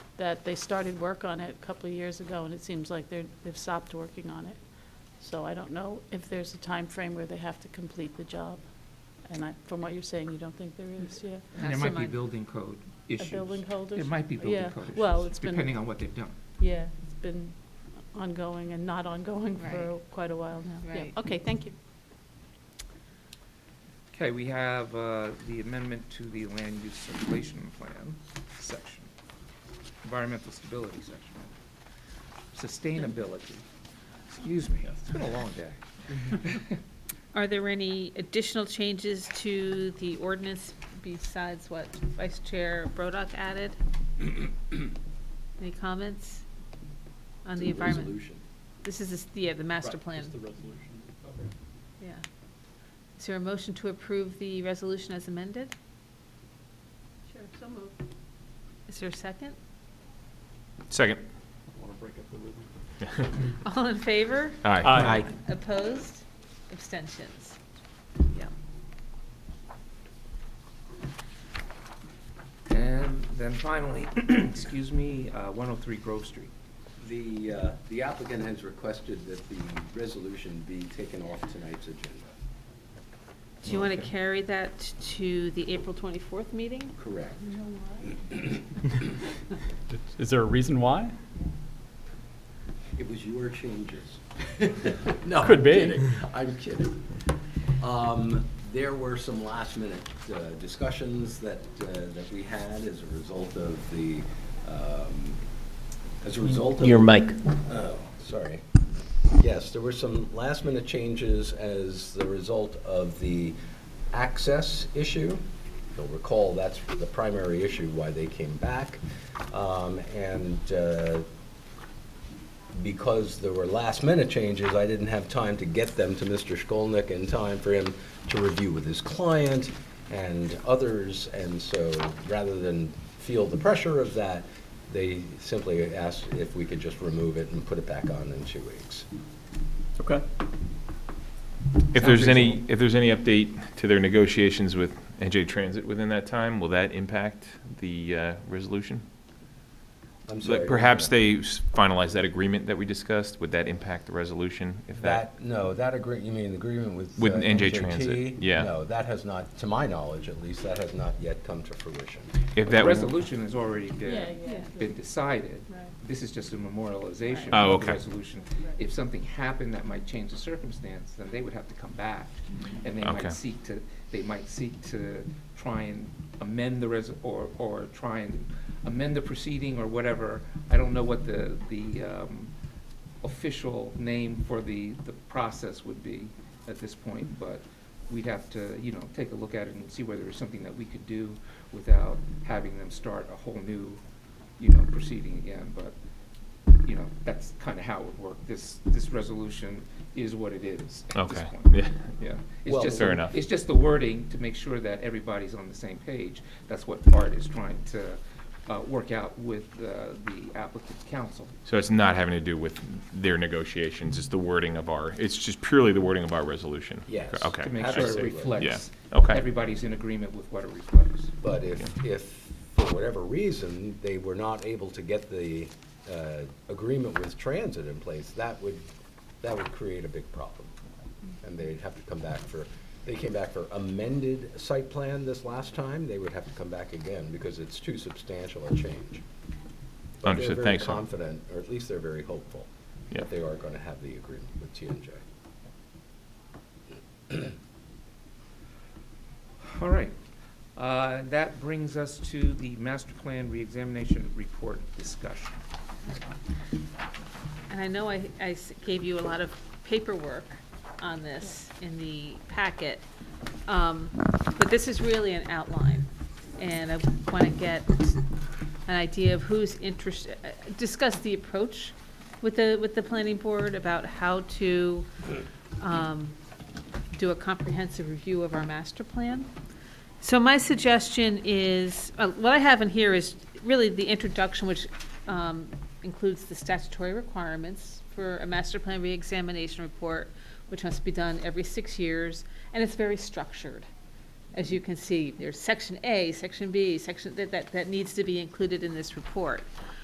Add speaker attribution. Speaker 1: that they started work on it a couple of years ago, and it seems like they're, they've stopped working on it. So I don't know if there's a time frame where they have to complete the job. And I, from what you're saying, you don't think there is, yeah?
Speaker 2: And there
Speaker 3: That's
Speaker 2: might be
Speaker 3: mine.
Speaker 2: building code
Speaker 1: A
Speaker 2: issues.
Speaker 1: building holders?
Speaker 2: It might be building
Speaker 1: Yeah,
Speaker 2: code issues.
Speaker 1: well, it's been-
Speaker 2: Depending on what they've done.
Speaker 1: Yeah, it's been ongoing and not ongoing for
Speaker 3: Right.
Speaker 1: quite a while now. Yeah.
Speaker 3: Right.
Speaker 1: Okay, thank you.
Speaker 2: Okay, we have uh, the amendment to the land use circulation plan section, environmental stability section, sustainability. Excuse me, it's been a long day.
Speaker 3: Are there any additional changes to the ordinance besides what Vice Chair Brodock added? Any comments on the environment?
Speaker 4: Resolution.
Speaker 3: This is, this- yeah, the master
Speaker 4: Right,
Speaker 3: plan,
Speaker 4: Just the resolution.
Speaker 3: yeah. Is there a motion to approve the resolution as amended?
Speaker 1: Sure, so moved.
Speaker 3: Is there a second?
Speaker 5: Second.
Speaker 4: Want to break up the rhythm?
Speaker 3: All in favor?
Speaker 5: Aye.
Speaker 3: Opposed? Abstentions? Yeah.
Speaker 2: And then finally, excuse me, uh, 103 Grove Street.
Speaker 6: The, uh, the applicant has requested that the resolution be taken off tonight's agenda.
Speaker 3: Do you want to
Speaker 2: Okay.
Speaker 3: carry that to the April 24th meeting?
Speaker 6: Correct.
Speaker 5: Is there a reason why?
Speaker 6: It was your changes.
Speaker 5: No, Could be.
Speaker 6: I'm kidding. I'm kidding. Um, There were some last-minute uh, discussions that, uh, that we had as a result of the, um, as a result of.
Speaker 7: Your mic.
Speaker 6: Oh, sorry. Yes, there were some last-minute changes as the result of the access issue. You'll recall, that's the primary issue why they came back. Um, And uh, because there were last-minute changes, I didn't have time to get them to Mr. Skolnick in time for him to review with his client and others, and so rather than feel the pressure of that, they simply asked if we could just remove it and put it back on in two weeks.
Speaker 7: Okay.
Speaker 5: If there's any, if there's any update to their negotiations with NJ Transit within that time, will that impact the uh, resolution?
Speaker 6: I'm
Speaker 5: Like,
Speaker 6: sorry.
Speaker 5: Perhaps they s- finalize that agreement that we discussed, would that impact the resolution if that?
Speaker 6: That, no, that agree, you mean the agreement with.
Speaker 5: With
Speaker 6: uh,
Speaker 5: NJ
Speaker 6: NJT?
Speaker 5: Transit, yeah.
Speaker 6: No, that has not, to my knowledge at least, that has not yet come to fruition.
Speaker 5: If
Speaker 2: The
Speaker 5: that,
Speaker 2: resolution is already
Speaker 1: Yeah,
Speaker 2: there,
Speaker 1: yeah.
Speaker 2: been decided.
Speaker 1: Right.
Speaker 2: This is just a memorialization
Speaker 5: Right. Oh,
Speaker 2: of the
Speaker 5: okay.
Speaker 2: resolution. If something happened that might change the circumstance, then they would have to come back. And they
Speaker 5: Okay.
Speaker 2: might seek to, they might seek to try and amend the res, or, or try and amend the proceeding or whatever. I don't know what the, the um, official name for the, the process would be at this point, but we'd have to, you know, take a look at it and see whether there's something that we could do without having them start a whole new, you know, proceeding again, but, you know, that's kind of how it would work. This, this resolution is what it is at this
Speaker 5: Okay.
Speaker 2: point.
Speaker 5: Yeah.
Speaker 2: Yeah. It's
Speaker 6: Well-
Speaker 2: just,
Speaker 5: Fair enough.
Speaker 2: it's just the wording to make sure that everybody's on the same page. That's what Art is trying to uh, work out with uh, the applicant counsel.
Speaker 5: so it's not having to do with their negotiations, it's the wording of our, it's just purely the wording of our resolution?
Speaker 6: Yes.
Speaker 5: Okay.
Speaker 2: To make
Speaker 5: I
Speaker 2: sure it
Speaker 5: see.
Speaker 6: Absolutely.
Speaker 2: reflects.
Speaker 5: Yeah. Okay.
Speaker 2: Everybody's in agreement with what it reflects.
Speaker 6: But if, if, for whatever reason, they were not able to get the uh, agreement with transit in place, that would, that would create a big problem. And they'd have to come back for, they came back for amended site plan this last time, they would have to come back again because it's too substantial a change. But
Speaker 5: Understood. Thanks, sir.
Speaker 6: They're very confident, or at least they're very hopeful,
Speaker 5: Yeah.
Speaker 6: that they are going to have the agreement with TNJ.
Speaker 2: All right. Uh, That brings us to the master plan reexamination report discussion.
Speaker 3: And I know I, I s- gave you a lot of paperwork on this in the packet, um, but this is really an outline. And I want to get an idea of who's interested, discuss the approach with the, with the planning board about how to um, do a comprehensive review of our master plan. So my suggestion is, uh, what I have in here is really the introduction, which um, includes the statutory requirements for a master plan reexamination report, which must be done every six years, and it's very structured. As you can see, there's section A, section B, section, that, that, that needs to be included in this report.